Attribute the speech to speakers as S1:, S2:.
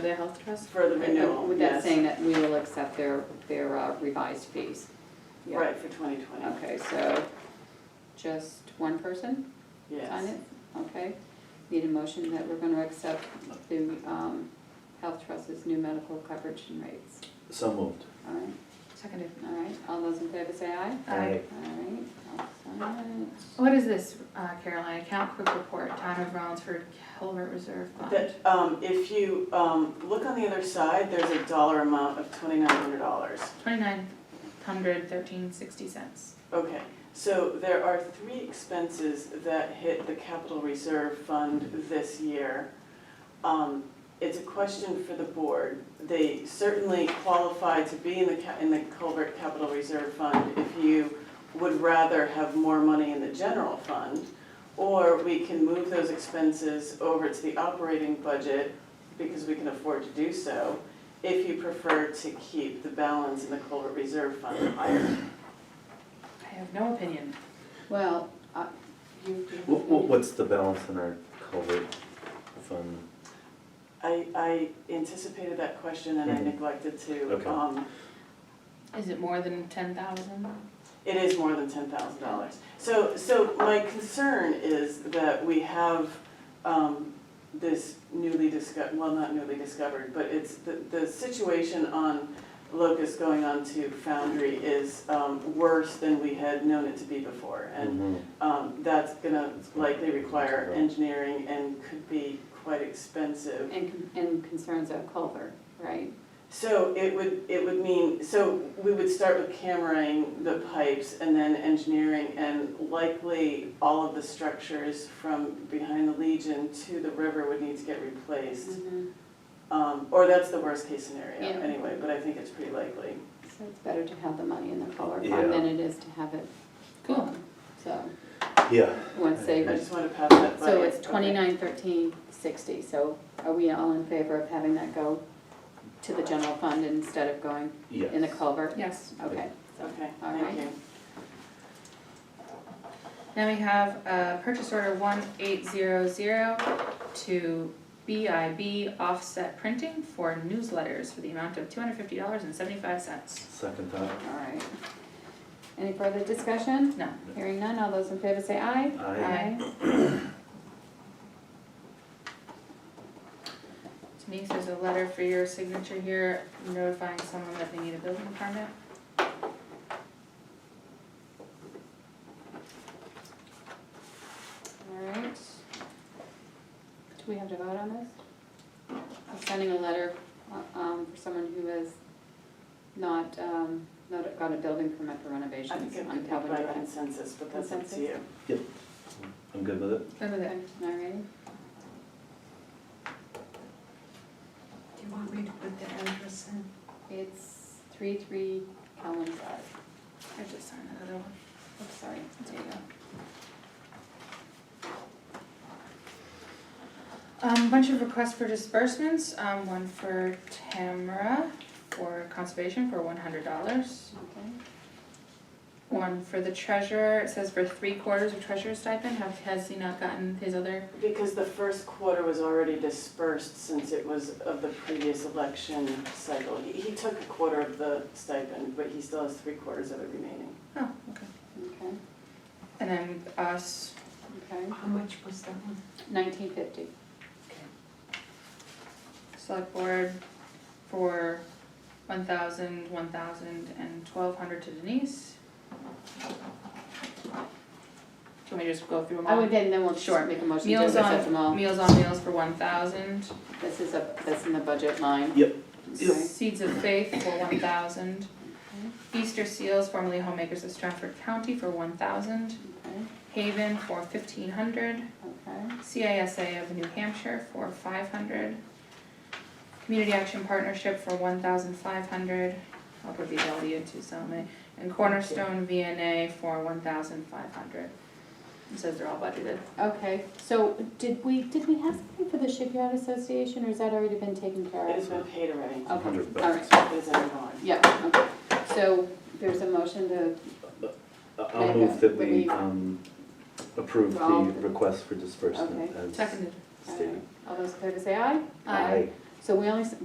S1: The health trust?
S2: For the renewal,
S3: With that
S2: yes.
S3: saying that we will accept their, their uh, revised fees. Yeah.
S2: Right, for 2020.
S3: Okay, so just one person sign
S2: Yes.
S3: it? Okay. Need a motion that we're gonna accept the, um, Health Trust's new medical coverage and rates.
S4: So moved.
S3: All right,
S1: Seconded.
S3: all right. All those in favor say aye.
S1: Aye.
S3: All right, I'll sign it.
S1: What is this, uh, Caroline, account quick report, town of Rollinsford Culvert Reserve Fund?
S2: That, um, if you, um, look on the other side, there's a dollar amount of $2,900.
S1: Twenty-nine hundred thirteen sixty cents.
S2: Okay, so there are three expenses that hit the capital reserve fund this year. Um, It's a question for the board. They certainly qualify to be in the, ca- in the culvert capital reserve fund if you would rather have more money in the general fund. Or we can move those expenses over to the operating budget because we can afford to do so if you prefer to keep the balance in the culvert reserve fund higher.
S1: I have no opinion.
S3: Well, uh, you. do you have
S4: What,
S3: any-
S4: what's the balance in our COVID fund?
S2: I, I anticipated that question and I
S4: Mhm.
S2: neglected to.
S4: Okay.
S2: um,
S1: Is it more than ten thousand?
S2: It is more than ten thousand dollars. So, so my concern is that we have um, this newly discovered, well, not newly discovered, but it's, the, the situation on Locust going on to Foundry is um, worse than we had known it to be before. And
S4: Mhm.
S2: um, that's gonna likely require engineering and could be quite expensive.
S3: And, con- and concerns of Culver, right?
S2: So it would, it would mean, so we would start with cameraing the pipes and then engineering and likely all of the structures from behind the Legion to the river would need to get replaced.
S3: Mhm.
S2: Um, or that's the worst case scenario
S3: Yeah.
S2: anyway, but I think it's pretty likely.
S3: So it's better to have the money in the Culver
S4: Yeah.
S3: fund than it is to have it
S1: Cool.
S3: gone. So,
S4: Yeah.
S3: once
S2: I
S3: they
S2: just want to pass that by.
S3: So it's
S2: Okay.
S3: twenty-nine thirteen sixty, so are we all in favor of having that go to the general fund instead of going
S4: Yes.
S3: in the culvert?
S1: Yes.
S3: Okay,
S2: Okay,
S3: All
S2: thank
S3: right.
S2: you.
S1: Now we have uh, purchase order one eight zero zero to BIB Offset Printing for newsletters for the amount of two hundred fifty dollars and seventy-five cents.
S4: Second time.
S3: all right. Any further discussion?
S1: No.
S3: Hearing none, all those in favor say aye.
S4: Aye.
S1: Denise, there's a letter for your signature here notifying someone that they need a building permit.
S3: All right. Do we have to vote on this? I'm sending a letter, uh, um, for someone who has not, um, not got a building permit for
S2: I think
S3: renovations
S2: it
S3: on
S2: could be
S3: Calvin
S2: by
S3: Drive.
S2: consensus, but that's up
S3: Consensus?
S2: to you.
S4: I'm good with it.
S1: Good with
S3: Okay, all right.
S5: Do you want me to put the address in?
S3: It's three three Calvin Drive.
S1: I just signed another one.
S5: Oh,
S3: Oops, sorry. There you go.
S1: Um, bunch of requests for disbursements, um, one for Tamara for conservation for one hundred dollars.
S3: Okay.
S1: One for the treasurer, it says for three quarters of treasurer's stipend, have, has he not gotten his other?
S2: Because the first quarter was already dispersed since it was of the previous election cycle. He, he took a quarter of the stipend, but he still has three quarters of it remaining.
S1: Oh, okay.
S3: Okay,
S1: And then us,
S3: okay.
S5: How much was that one?
S3: Nineteen fifty.
S1: select board for one thousand, one thousand, and twelve hundred to Denise. Do you want me to just go through them all?
S3: I would Oh, then, then we'll
S1: Sure.
S3: just make a motion to
S1: Meals
S3: accept them
S1: on,
S3: all.
S1: meals on meals for one thousand.
S3: This is a, that's in the budget line.
S4: Yep.
S3: Okay.
S1: Seeds of Faith for one thousand. Easter Seals, formerly Homemakers of Stratford County for one thousand.
S3: Okay,
S1: Haven for fifteen hundred.
S3: okay,
S1: CISA of New Hampshire for five hundred. Community Action Partnership for one thousand five hundred. I'll put these all into some, and Cornerstone VNA for one thousand five hundred. It says they're all budgeted.
S3: okay. So did we, did we have something for the shipyard association or has that already been taken care
S2: It
S3: of?
S2: has been paid already.
S3: Okay,
S4: Hundred
S3: all right.
S4: bucks.
S2: It is ongoing.
S3: Yeah, okay. So there's a motion to, uh,
S4: I-
S3: Okay,
S4: I'll move that
S3: but
S4: we,
S3: we-
S4: um, approve the
S3: Well,
S4: request for disbursement as
S3: all right.
S4: stated.
S3: All those in favor say aye.
S1: Aye.
S3: So we only, s-